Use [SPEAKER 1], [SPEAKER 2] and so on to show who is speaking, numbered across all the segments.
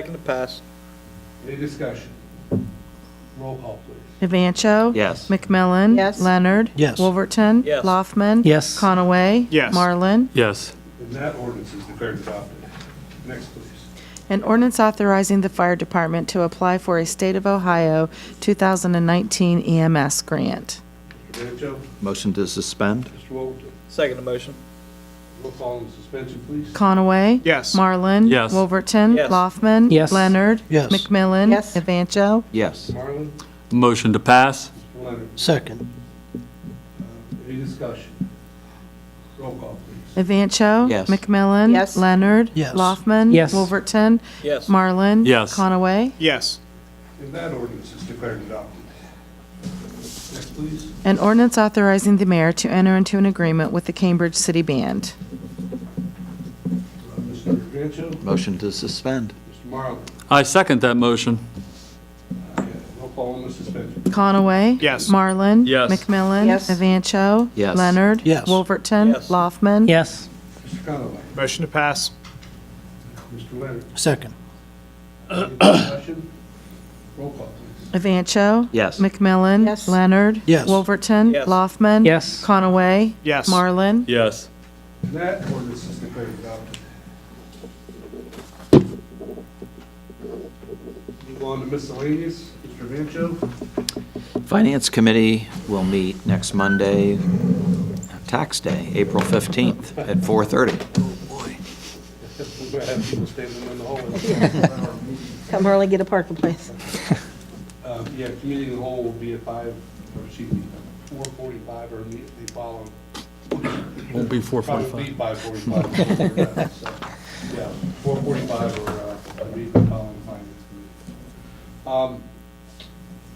[SPEAKER 1] Second to pass.
[SPEAKER 2] Any discussion? Roll call, please.
[SPEAKER 3] Evancho.
[SPEAKER 4] Yes.
[SPEAKER 3] McMillan.
[SPEAKER 5] Yes.
[SPEAKER 3] Leonard.
[SPEAKER 6] Yes.
[SPEAKER 3] Wolverton.
[SPEAKER 1] Yes.
[SPEAKER 3] Laufman.
[SPEAKER 6] Yes.
[SPEAKER 3] Conaway.
[SPEAKER 7] Yes.
[SPEAKER 3] Marlin.
[SPEAKER 7] Yes.
[SPEAKER 2] And that ordinance is declared adopted. Next, please.
[SPEAKER 3] An ordinance authorizing the fire department to apply for a State of Ohio 2019 EMS E grant.
[SPEAKER 2] Mr. Banjo,
[SPEAKER 4] Motion to suspend?
[SPEAKER 2] Mr. Wolverton,
[SPEAKER 1] Second to motion.
[SPEAKER 2] roll call on suspension, please.
[SPEAKER 3] Conaway.
[SPEAKER 7] Yes.
[SPEAKER 3] Marlin.
[SPEAKER 7] Yes.
[SPEAKER 3] Wolverton.
[SPEAKER 1] Yes.
[SPEAKER 3] Laufman.
[SPEAKER 6] Yes.
[SPEAKER 3] Leonard.
[SPEAKER 6] Yes.
[SPEAKER 3] McMillan.
[SPEAKER 5] Yes.
[SPEAKER 3] Evancho.
[SPEAKER 4] Yes.
[SPEAKER 2] Marlin,
[SPEAKER 7] Motion to pass?
[SPEAKER 2] Mr. Leonard,
[SPEAKER 6] Second.
[SPEAKER 2] Uh, any discussion? Roll call, please.
[SPEAKER 3] Evancho.
[SPEAKER 4] Yes.
[SPEAKER 3] McMillan.
[SPEAKER 5] Yes.
[SPEAKER 3] Leonard.
[SPEAKER 6] Yes.
[SPEAKER 3] Laufman.
[SPEAKER 6] Yes.
[SPEAKER 3] Wolverton.
[SPEAKER 1] Yes.
[SPEAKER 3] Marlin.
[SPEAKER 7] Yes.
[SPEAKER 3] Conaway.
[SPEAKER 7] Yes.
[SPEAKER 2] And that ordinance is declared adopted. Next, please.
[SPEAKER 3] An ordinance authorizing the mayor to enter into an agreement with the Cambridge City Band.
[SPEAKER 2] Uh, Mr. Banjo,
[SPEAKER 4] Motion to suspend?
[SPEAKER 2] Mr. Marlin,
[SPEAKER 7] I second that motion.
[SPEAKER 2] uh, roll call on the suspension.
[SPEAKER 3] Conaway.
[SPEAKER 7] Yes.
[SPEAKER 3] Marlin.
[SPEAKER 7] Yes.
[SPEAKER 3] McMillan.
[SPEAKER 5] Yes.
[SPEAKER 3] Evancho.
[SPEAKER 4] Yes.
[SPEAKER 3] Leonard.
[SPEAKER 6] Yes.
[SPEAKER 3] Wolverton.
[SPEAKER 1] Yes.
[SPEAKER 3] Laufman.
[SPEAKER 6] Yes.
[SPEAKER 2] Mr. Conaway,
[SPEAKER 7] Motion to pass?
[SPEAKER 2] Mr. Leonard,
[SPEAKER 6] Second.
[SPEAKER 2] any discussion? Roll call, please.
[SPEAKER 3] Evancho.
[SPEAKER 4] Yes.
[SPEAKER 3] McMillan.
[SPEAKER 5] Yes.
[SPEAKER 3] Leonard.
[SPEAKER 6] Yes.
[SPEAKER 3] Wolverton.
[SPEAKER 1] Yes.
[SPEAKER 3] Laufman.
[SPEAKER 6] Yes.
[SPEAKER 3] Conaway.
[SPEAKER 7] Yes.
[SPEAKER 3] Marlin.
[SPEAKER 7] Yes.
[SPEAKER 2] And that ordinance is declared adopted. Move on to miscellaneous. Mr. Vancho,
[SPEAKER 4] Finance Committee will meet next Monday, Tax Day, April 15th at 4:30.
[SPEAKER 2] we're going to have people standing in the hallway.
[SPEAKER 5] Come early, get a parking place.
[SPEAKER 2] Uh, Yeah, committee of the whole will be at five, or excuse me, four forty-five or immediately following.
[SPEAKER 7] Won't be four
[SPEAKER 2] Probably be by forty-five. before we're done, so, Yeah, four forty-five or uh, immediately following finance committee. Um,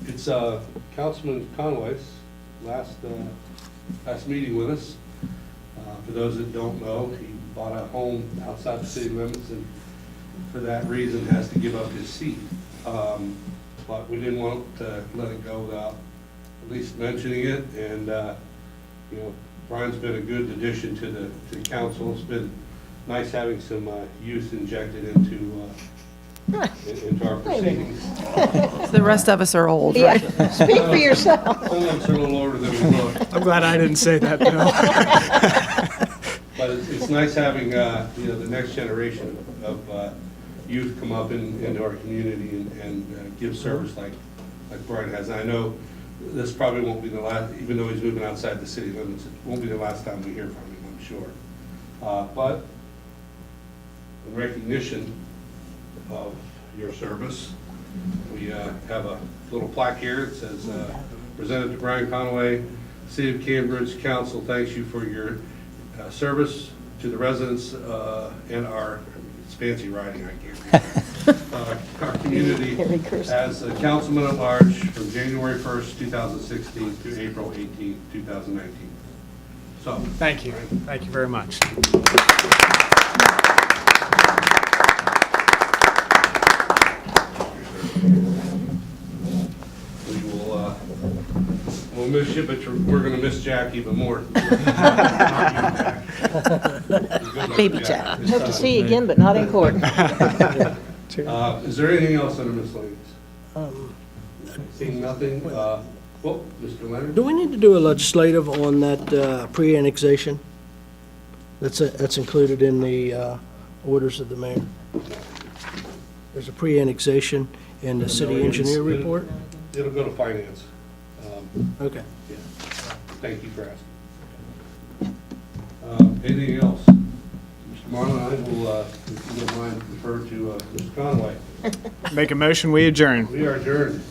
[SPEAKER 2] It's uh, Councilman Conway's last, uh, last meeting with us. Uh, For those that don't know, he bought a home outside the city limits and for that reason has to give up his seat. Um, But we didn't want to let it go without at least mentioning it. And, uh, you know, Brian's been a good addition to the, to the council. It's been nice having some uh, youth injected into, uh, in- into our proceedings. Uh,
[SPEAKER 3] The rest of us are old,
[SPEAKER 5] Yeah,
[SPEAKER 3] right?
[SPEAKER 5] speak for yourself.
[SPEAKER 2] Some of us are a little older than we look.
[SPEAKER 7] I'm glad I didn't say that,
[SPEAKER 2] But it's, it's nice having, uh, you know, the next generation of, uh, youth come up in, into our community and, and uh, give service like, like Brian has. I know this probably won't be the last, even though he's moving outside the city limits, it won't be the last time we hear from him, I'm sure. Uh, but in recognition of your service, we, uh, have a little plaque here that says, uh, presented to Brian Conway, City of Cambridge Council thanks you for your uh, service to the residents uh, and our, it's fancy writing, I can't read. Uh, Our community
[SPEAKER 5] Very cursive.
[SPEAKER 2] as a councilman at large from January 1st, 2016 to April 18th, 2019. So.
[SPEAKER 8] Thank you. Thank you very much.
[SPEAKER 2] We will, uh, we'll miss you, but you're- we're going to miss Jack even more.
[SPEAKER 5] Baby Jack.
[SPEAKER 2] It's
[SPEAKER 5] Hope to
[SPEAKER 2] time.
[SPEAKER 5] see you again, but not in court.
[SPEAKER 2] Uh, Is there anything else under miscellaneous?
[SPEAKER 5] Um,
[SPEAKER 2] Seeing nothing, uh, well, Mr. Leonard?
[SPEAKER 6] Do we need to do a legislative on that uh, pre-annexation? That's, uh, that's included in the uh, orders of the mayor. There's a pre-annexation in the city engineer report?
[SPEAKER 2] It'll go to finance. Um,
[SPEAKER 6] Okay.
[SPEAKER 2] yeah. Thank you for asking. Um, Anything else? Mr. Marlin, I will, uh, if you don't mind, refer to uh, Mr. Conway.
[SPEAKER 7] Make a motion, we adjourn.
[SPEAKER 2] We are adjourned.